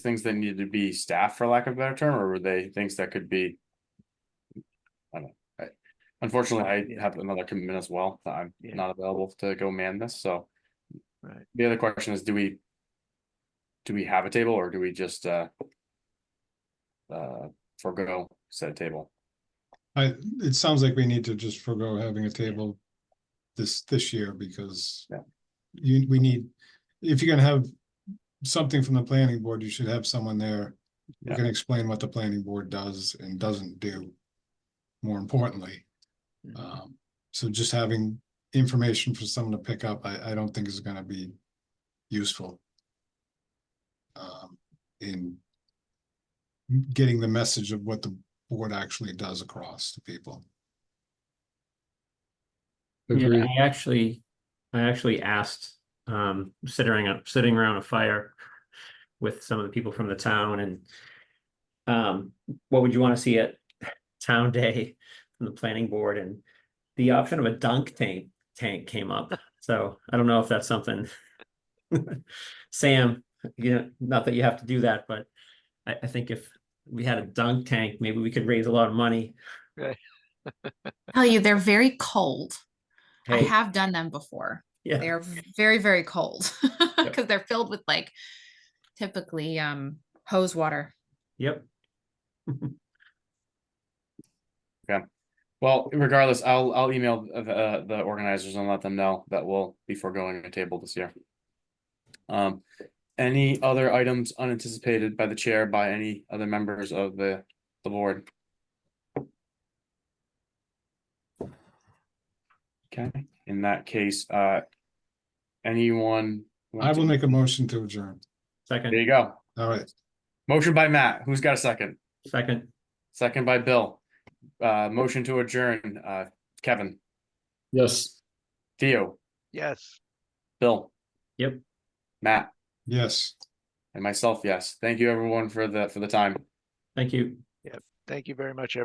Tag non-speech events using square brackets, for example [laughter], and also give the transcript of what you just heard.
things that needed to be staffed, for lack of a better term, or were they things that could be? I don't know, I, unfortunately, I have another commitment as well, that I'm Yeah. not available to go man this, so. Right. The other question is, do we? Do we have a table or do we just, uh? Uh, forego said table? I, it sounds like we need to just forego having a table this, this year because Yeah. you, we need, if you're gonna have something from the planning board, you should have someone there who Yeah. can explain what the planning board does and doesn't do, more importantly. Mm-hmm. Mhm. Um, so just having information for someone to pick up, I, I don't think is gonna be useful. Um, in getting the message of what the board actually does across to people. Yeah, I actually, I actually asked, um, sitting around, sitting around a fire with some of the people from the town and um, what would you want to see at town day from the planning board and the option of a dunk tank, tank came [laughs] up. So I don't know if that's something. [laughs] Sam, you know, not that you have to do that, but I, I think if we had a dunk tank, maybe we could raise a lot of money. Tell you, they're very cold. I Hey, have done them before. yeah, They're very, very cold [laughs] because they're filled with like typically um hose water. yep. Well, regardless, I'll, I'll email uh, the, the organizers and let them know that we'll be foregoing a table this year. Um, any other items unanticipated by the chair, by any other members of the, the board? Okay, in that case, uh, anyone? want I will to- make a motion to adjourn. There Second, you go. All right, Motion by Matt. Who's got a second? second, Second by Bill. Uh, motion to adjourn, uh, Kevin, Yes. Theo, Yes. Bill. yep. Matt yes. and myself, yes. Thank you everyone for the, for the time. Thank you. Thank you very much, everyone.